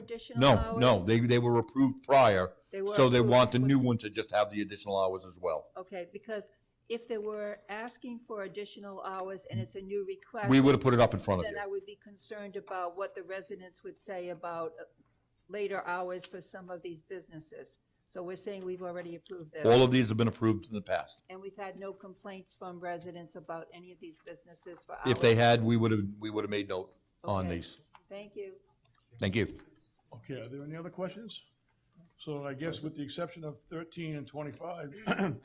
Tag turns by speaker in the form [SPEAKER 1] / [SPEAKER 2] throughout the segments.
[SPEAKER 1] additional
[SPEAKER 2] No,
[SPEAKER 1] hours?
[SPEAKER 2] no, they, they were approved prior,
[SPEAKER 1] They were
[SPEAKER 2] so they
[SPEAKER 1] approved,
[SPEAKER 2] want the
[SPEAKER 1] but-
[SPEAKER 2] new one to just have the additional hours as well.
[SPEAKER 1] Okay, because if they were asking for additional hours and it's a new request.
[SPEAKER 2] We would have put it up in front of
[SPEAKER 1] Then
[SPEAKER 2] you.
[SPEAKER 1] I would be concerned about what the residents would say about uh, later hours for some of these businesses. So we're saying we've already approved this.
[SPEAKER 2] All of these have been approved in the past.
[SPEAKER 1] And we've had no complaints from residents about any of these businesses for hours.
[SPEAKER 2] If they had, we would have, we would have made note on
[SPEAKER 1] Okay.
[SPEAKER 2] these.
[SPEAKER 1] Thank you.
[SPEAKER 2] Thank you.
[SPEAKER 3] Okay, are there any other questions? So I guess with the exception of thirteen and twenty-five,
[SPEAKER 4] I think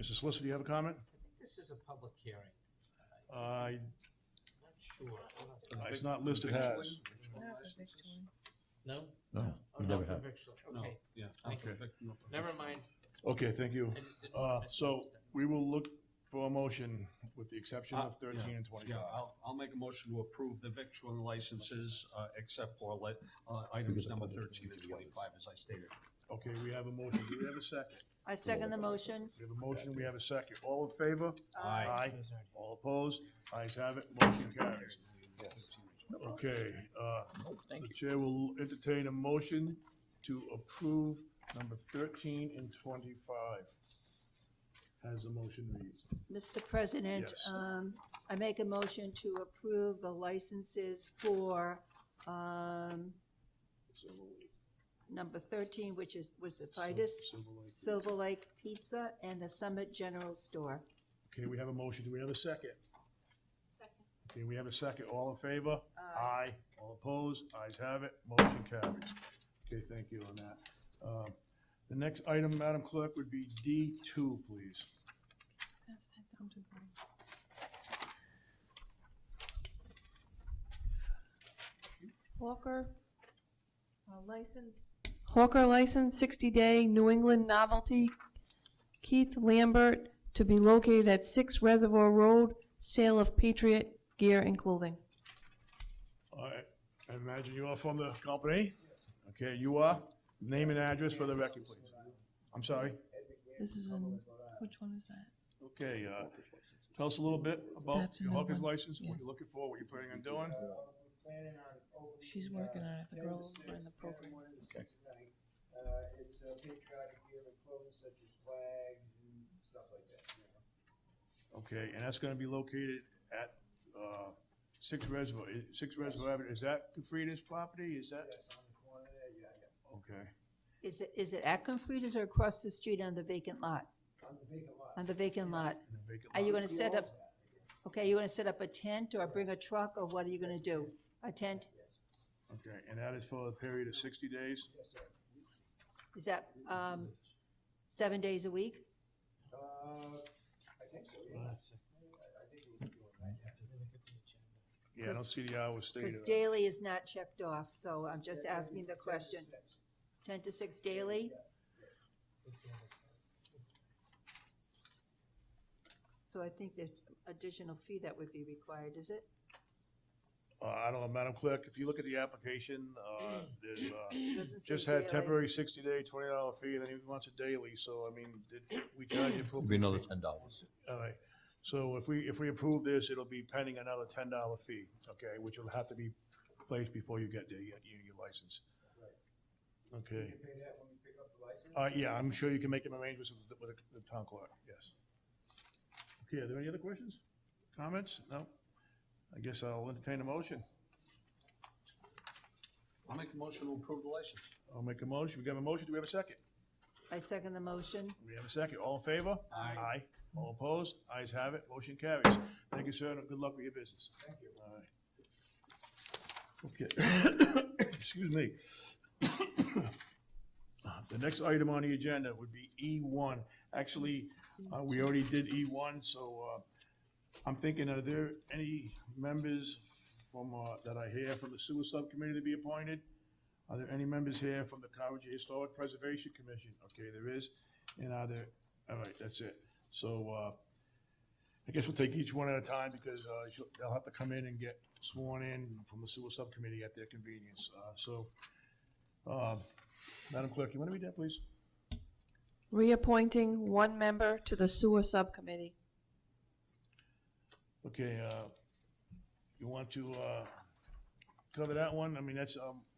[SPEAKER 3] Mr. Solicitor, do you have a comment?
[SPEAKER 4] this is a public hearing,
[SPEAKER 3] Uh,
[SPEAKER 4] not sure.
[SPEAKER 3] it's not listed as.
[SPEAKER 4] No?
[SPEAKER 2] No,
[SPEAKER 4] Oh,
[SPEAKER 2] we
[SPEAKER 4] not
[SPEAKER 2] never
[SPEAKER 4] for
[SPEAKER 2] have.
[SPEAKER 4] victual, okay. Yeah. Never mind.
[SPEAKER 3] Okay, thank you.
[SPEAKER 4] I just didn't-
[SPEAKER 3] Uh,
[SPEAKER 4] I
[SPEAKER 3] so
[SPEAKER 4] missed it.
[SPEAKER 3] we will look for a motion with the exception of thirteen and
[SPEAKER 5] Uh, Yeah,
[SPEAKER 3] twenty-five.
[SPEAKER 5] I'll, I'll make a motion to approve the victualling licenses, uh, except for li- uh, items number thirteen and twenty-five, as I stated.
[SPEAKER 3] Okay, we have a motion. Do we have a second?
[SPEAKER 1] I second the motion.
[SPEAKER 3] We have a motion, we have a second. All in favor?
[SPEAKER 5] Aye.
[SPEAKER 3] All opposed? Ayes have it, motion carries. Okay, uh, the chair will entertain a motion to approve number thirteen and twenty-five. As the motion reads.
[SPEAKER 1] Mr. President,
[SPEAKER 3] Yes.
[SPEAKER 1] um, I make a motion to approve the licenses for, um, number thirteen, which is, was the Fidus, Silver Lake Pizza, and the Summit General Store.
[SPEAKER 3] Okay, we have a motion. Do we have a second? Okay, we have a second. All in favor? Aye. All opposed? Ayes have it. Motion carries. Okay, thank you on that. Um, The next item, Madam Clerk, would be D two, please.
[SPEAKER 6] Hawker, uh, license. Hawker license, sixty-day New England novelty. Keith Lambert to be located at Six Reservoir Road, sale of Patriot gear and clothing.
[SPEAKER 3] All right, I imagine you are from the company? Okay, you are? Name and address for the record, please. I'm sorry?
[SPEAKER 6] This is in, which one is that?
[SPEAKER 3] Okay, uh, tell us a little bit about
[SPEAKER 6] That's
[SPEAKER 3] your
[SPEAKER 6] another
[SPEAKER 3] hawker's
[SPEAKER 6] one,
[SPEAKER 3] license, what
[SPEAKER 6] yes.
[SPEAKER 3] you're looking for, what you're planning on doing.
[SPEAKER 6] She's working on it, the girl over in the program.
[SPEAKER 3] Okay.
[SPEAKER 7] Uh, it's uh, patriotic gear and clothes such as flags and stuff like that, you know.
[SPEAKER 3] Okay, and that's gonna be located at, uh, Six Reservoir, i- Six Reservoir Avenue, is that Frida's property, is that?
[SPEAKER 7] That's on the corner there, yeah, yeah.
[SPEAKER 3] Okay,
[SPEAKER 1] Is it, is it at Confrida's or across the street on the vacant lot?
[SPEAKER 7] On the vacant lot.
[SPEAKER 1] On the vacant lot?
[SPEAKER 3] in a vacant
[SPEAKER 1] Are you
[SPEAKER 3] lot.
[SPEAKER 1] gonna set up, okay, are you gonna set up a tent or bring a truck, or what are you gonna do? A tent?
[SPEAKER 3] Okay, and that is for a period of sixty days?
[SPEAKER 1] Is that, um, seven days a week?
[SPEAKER 7] Uh, I think so, yeah.
[SPEAKER 3] Yeah, I don't see the hours stated.
[SPEAKER 1] Because daily is not checked off, so I'm just asking the question. Ten to six daily? So I think there's additional fee that would be required, is it?
[SPEAKER 3] Uh, I don't know, Madam Clerk, if you look at the application, uh, there's, uh,
[SPEAKER 1] Doesn't say
[SPEAKER 3] just had
[SPEAKER 1] daily.
[SPEAKER 3] temporary sixty day, twenty dollar fee, and then he wants it daily, so I mean, did- we charge it for.
[SPEAKER 2] It'd be another ten dollars.
[SPEAKER 3] All right, so if we, if we approve this, it'll be pending another ten dollar fee, okay, which will have to be placed before you get the, your, your license. Okay,
[SPEAKER 7] You pay that when we pick up the license?
[SPEAKER 3] uh, yeah, I'm sure you can make an arrangement with, the- with the town clerk, yes. Okay, are there any other questions, comments? No? I guess I'll entertain a motion.
[SPEAKER 5] I'll make a motion to approve the license.
[SPEAKER 3] I'll make a motion, we got a motion, do we have a second?
[SPEAKER 1] I second the motion.
[SPEAKER 3] We have a second, all in favor? Aye. Aye, all opposed? Ayes have it, motion carries. Thank you, sir, and good luck with your business. Thank you. All right. Okay, excuse me. Uh, The next item on the agenda would be E one. Actually, uh, we already did E one, so, uh, I'm thinking, are there any members from, uh, that I hear from the sewer subcommittee to be appointed? Are there any members here from the Carriage Historic Preservation Commission? Okay, there is. And are there, all right, that's it. So, uh, I guess we'll take each one at a time because, uh, she'll- they'll have to come in and get sworn in from the sewer subcommittee at their convenience. Uh, so, uh, Madam Clerk, you want to read that, please?
[SPEAKER 6] Reappointing one member to the sewer subcommittee.
[SPEAKER 3] Okay, uh, you want to, uh, cover that one? I mean, that's, um,